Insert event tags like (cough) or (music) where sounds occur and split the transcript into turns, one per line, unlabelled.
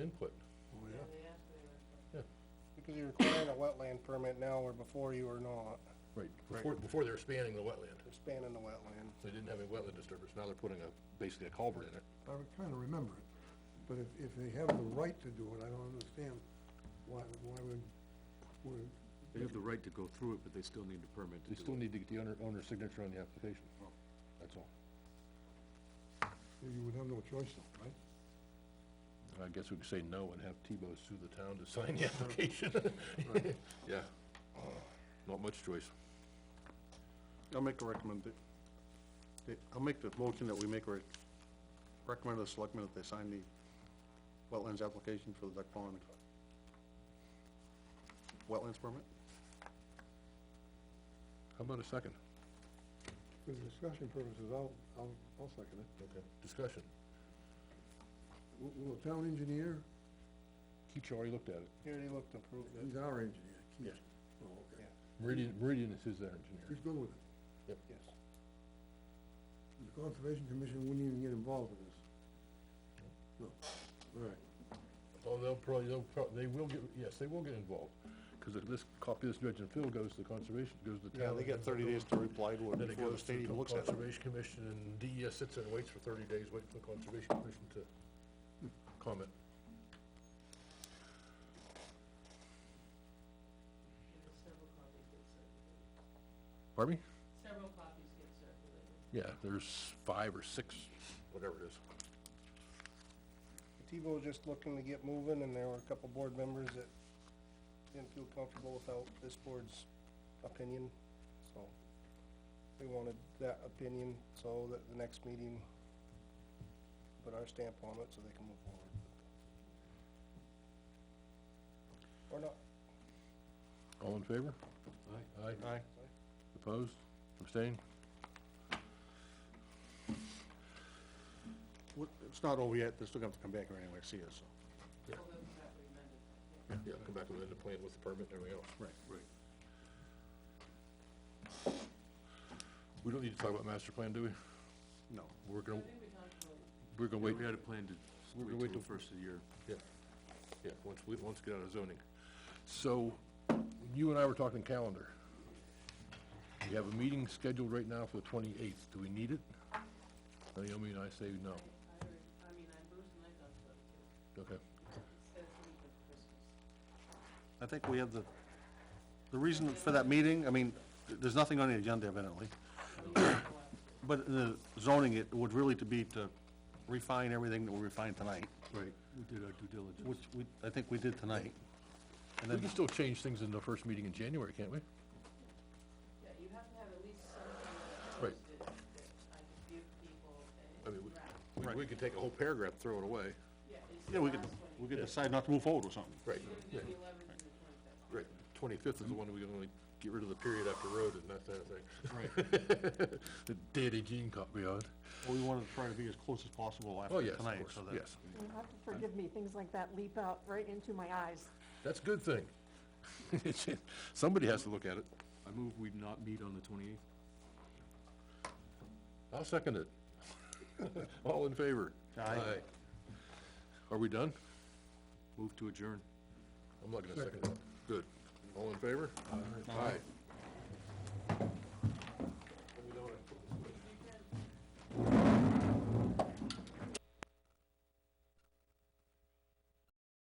input.
Oh, yeah.
Because you're requiring a wetland permit now where before you were not,
Right. Before, before they're expanding the wetland,
expanding the wetland.
they didn't have any wetland disturbance, now they're putting a, basically a culvert in it.
I would kinda remember it, but if, if they have the right to do it, I don't understand why, why would, would,
They have the right to go through it, but they still need a permit
They
to
still
do it.
need to get the owner, owner's signature on the application, that's all.
you would have no choice though, right?
I guess we could say no and have Tebow sue the town to sign the application. (laughs) Yeah, Uh, not much choice.
I'll make a recommend, that- I'll make the motion that we make, a rec- recommend to the selectmen that they sign the wetlands application for the duck pond. Wetlands permit?
How about a second?
For the discussion purposes, I'll, I'll, I'll second it.
Okay. Discussion.
Will, will the town engineer,
Keach already looked at it.
He already looked and approved it,
he's our engineer, Keith.
Yes.
Oh, okay.
Meridian, Meridian is his
He's
engineer.
good with it.
yes.
The Conservation Commission wouldn't even get involved with this. No, all right.
Oh, they'll probably, they'll, prob- they will get, yes, they will get involved, because if this copy of this dredge and fill goes to the conservation, goes to the
Yeah,
town.
they got thirty days to reply to it
Then it
before the
goes to
state
the
even looks at it.
Conservation Commission, and DES sits there and waits for thirty days, waiting for the Conservation Commission to comment. Pardon me?
Several copies get circulated.
Yeah, there's five or six, whatever it is.
Tebow was just looking to get moving and there were a couple board members that didn't feel comfortable without this board's opinion, so. They wanted that opinion so that the next meeting, put our stamp on it so they can move forward. Or not.
All in favor? Aye. Aye.
Aye.
Opposed? Abstained?
What- It's not over yet, they're still gonna have to come back here anyway, see us, so.
Yeah, come back with the plan with the permit and everything else.
Right, right.
We don't need to talk about master plan, do we?
No.
We're gonna, we're gonna wait,
We had a plan to
We're gonna
wait
wait
till
till-
the first of the year.
yeah, yeah, once we, once we get out of zoning. So, you and I were talking calendar. We have a meeting scheduled right now for the twenty-eighth, do we need it? Naomi and I say no,
I heard, I mean, I, Bruce and I thought so too.
okay,
It's that week of Christmas.
I think we have the, the reason for that meeting, I mean, th- there's nothing on the agenda evidently. But the zoning, it would really to be to refine everything that we refined tonight,
Right, we did our due diligence.
which we, I think we did tonight. And
we
then,
can still change things in the first meeting in January, can't we?
Yeah, you have to have at least something that's
Right.
posted that I could give people
I
and
mean, we-
draft.
we, we could take a whole paragraph, throw it away.
Yeah, it's
yeah,
the
we could,
last
we
one.
could decide not to move forward or something.
Right,
It's
yeah,
the eleventh and the twenty-fifth.
right, twenty-fifth is the one we're gonna get rid of the period after road and that sort of thing. (laughs) Right. The Danny Jean caught me on.
Well, we wanted to try to be as close as possible
Oh,
after
yes, of
tonight,
course,
so that.
yes,
You'll have to forgive me, things like that leap out right into my eyes.
that's a good thing. (laughs) Somebody has to look at it.
I move we not meet on the twenty-eighth.
I'll second it. (laughs) All in favor?
Aye.
Are we done?
Move to adjourn.
I'm not gonna second it. Good. All in favor? Aye.